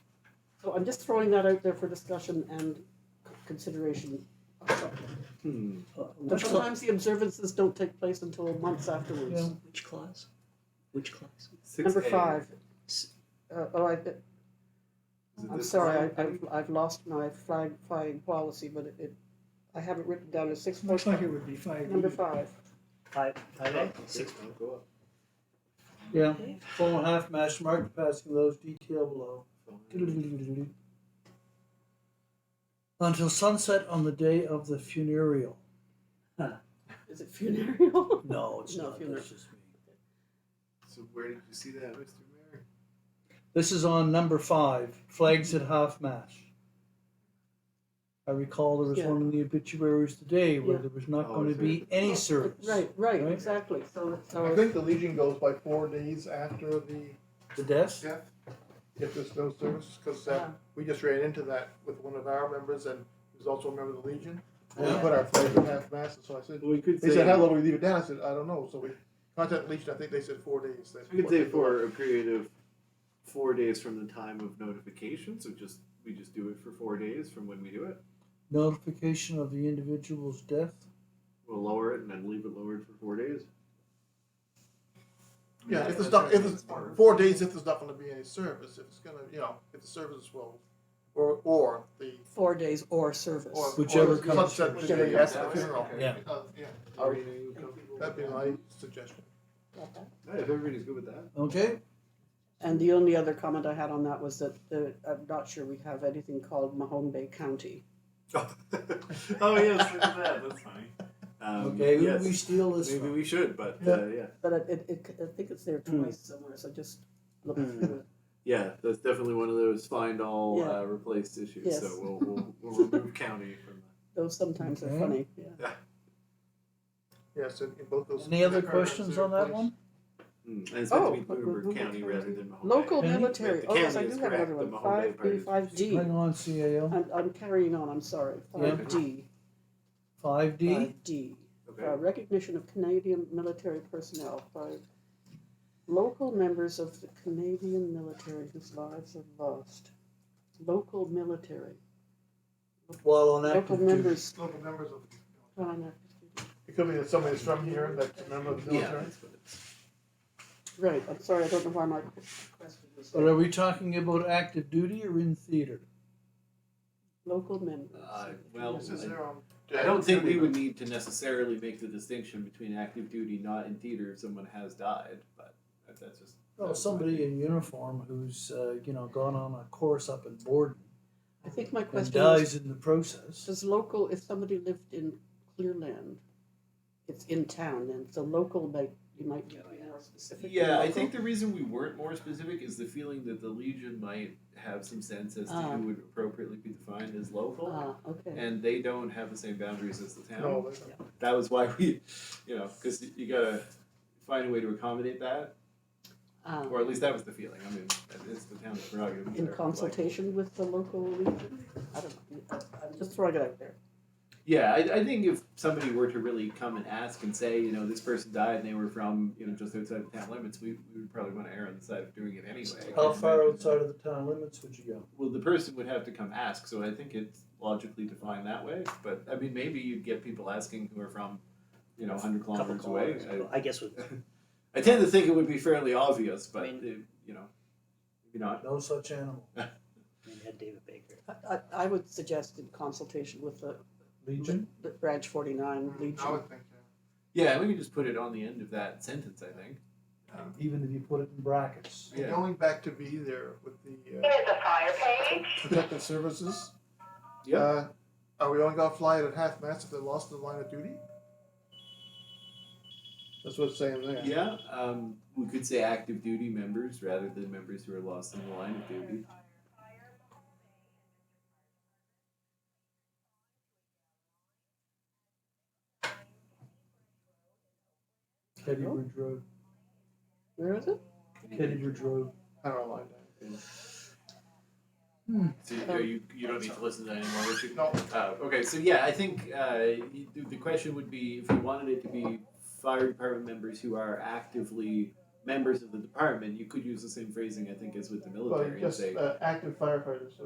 So I'm just throwing that out there for discussion and c- consideration. Hmm. Uh, But Which clause? sometimes the observances don't take place until months afterwards. Which clause? Which clause? Number 6A. five. S- Uh, oh, I, Is it I'm this sorry, line? I, I've, I've lost my flag, flying policy, but it, it, I have it written down as six, Looks like it would be five. number five. Five, five Oh, A, okay, six. I'll go up. Yeah, full and half match marked passing those detailed below. Until sunset on the day of the funereal. Is it funereal? No, it's No, not. funeral. That's just me. So where did you see that, Mr. Mayor? This is on number five, flags at half mast. I recall there was Yeah. one in the obituaries today where Yeah. there was not Oh, going is to there? be any service. Right, right, Right. exactly, so, it's- I so, think the Legion goes by four days after the The death. death, if there's no service, because uh, Yeah. we just ran into that with one of our members and he was also a member of the Legion. And we Yeah. put our flag in half mast, so I said, Well, we could they said, how say, long do we leave it down? I said, I don't know, so we contacted the Legion, I think they said four days. That's we could what say they- for a period of four days from the time of notification, so just, we just do it for four days from when we do it. Notification of the individual's death. We'll lower it and then leave it lowered for four days. Yeah, if there's not, if there's, four days if there's not gonna be any service, if it's gonna, you know, if the service is well, or, or the, four days or or. service. Whichever or comes Sunset, first. the day after the funeral. Yeah. Uh, Yeah, Are you comfortable that'd be with my suggestion. Okay. that? Yeah, if everybody's good with that. Okay? And the only other comment I had on that was that the, I'm not sure we have anything called Mahone Bay County. oh yes, look at that. That's funny. Um, Okay, who yes. do we steal this Maybe from? we should, but uh, Yeah. yeah, But it, it- it, I think it's there Hmm. twice somewhere, so just look through yeah, that's definitely one of those find all Yeah. uh, replaced issues. Yes. So we'll, we'll, we'll remove county from it. Those sometimes are Okay. funny, yeah. Yes, in in both those. Any other departments, questions they're on that placed- one? that. Mm. And it's meant Oh, to be but Lunenburg Lunenburg County rather County. than Mahone Local Bay. County? military, The oh yes, I county do is have correct, another the one, Mahone Bay five B, part five D. Hang on, CAO. I'm, I'm carrying on, I'm sorry, Yeah. five D, 5D. five D. Okay. Uh, recognition of Canadian military personnel by local members of the Canadian military whose lives are lost. Local military, While on local active duty. members, Local members of, on a- it could be that somebody's from here that's a member of the Yeah, military. that's what it is. right, I'm sorry, I don't know why my question was But are there. we talking about active duty or in theater? Local members. Uh, of the well, This is Canadian- their um, own. I don't think we would need to necessarily make the distinction between active duty not in theater if someone has died, but that- that's just. Well, Oh, somebody in uniform who's, uh, you know, gone on a course up in Borden I think my and question was, dies in the process. does local, if somebody lived in Clearland, it's in town, and so local, like, you might be more specific. than Yeah, I local. think the reason we weren't more specific is the feeling that the Legion might have some sense as to Ah. who would appropriately be defined as local. Ah, okay, And they don't have the same boundaries as the town. No, um, they- That was why we, you know, because you gotta find a way to accommodate that, ah, or at least that was the feeling. I mean, it's the town's prerogative. in they're like- consultation with the local region? I don't know, I'm just throwing it out there. Yeah, I, I think if somebody were to really come and ask and say, you know, this person died and they were from, you know, just outside the town limits, we, we would probably want to err on the side of doing it anyway. How far outside of the town limits would you go? Well, the person would have to come ask, so I think it's logically defined that way. But I mean, maybe you'd get people asking who are from, you know, 100 Couple kilometers away. kilometers, I, I guess with I tend to think it would be fairly obvious, but, I mean- it- you know, maybe not. No such animal. we had David Baker. I, I, I would suggest in consultation with the, Legion? the branch forty-nine I region. would think, yeah. Yeah, we could just put it on the end of that sentence, I think. Um, Even if you put it in brackets. Yeah. Going back to be there with the uh, Here's a fire page. protective services. Yeah. Uh, Are we only gonna fly it at half mast if they're lost in the line of duty? That's what it's saying there. Yeah, um, we could say active duty members rather than members who are lost in the line of duty. Keddybridge Road. Where is it? Keddybridge Road. I don't know, line So you, you, you don't need to listen to that anymore. What you, No. uh, okay, so yeah, I think uh, you- the- the question would be if we wanted it to be fire department members who are actively members of the department, you could use the same phrasing I think as with the Well, military and just say uh, active firefighters.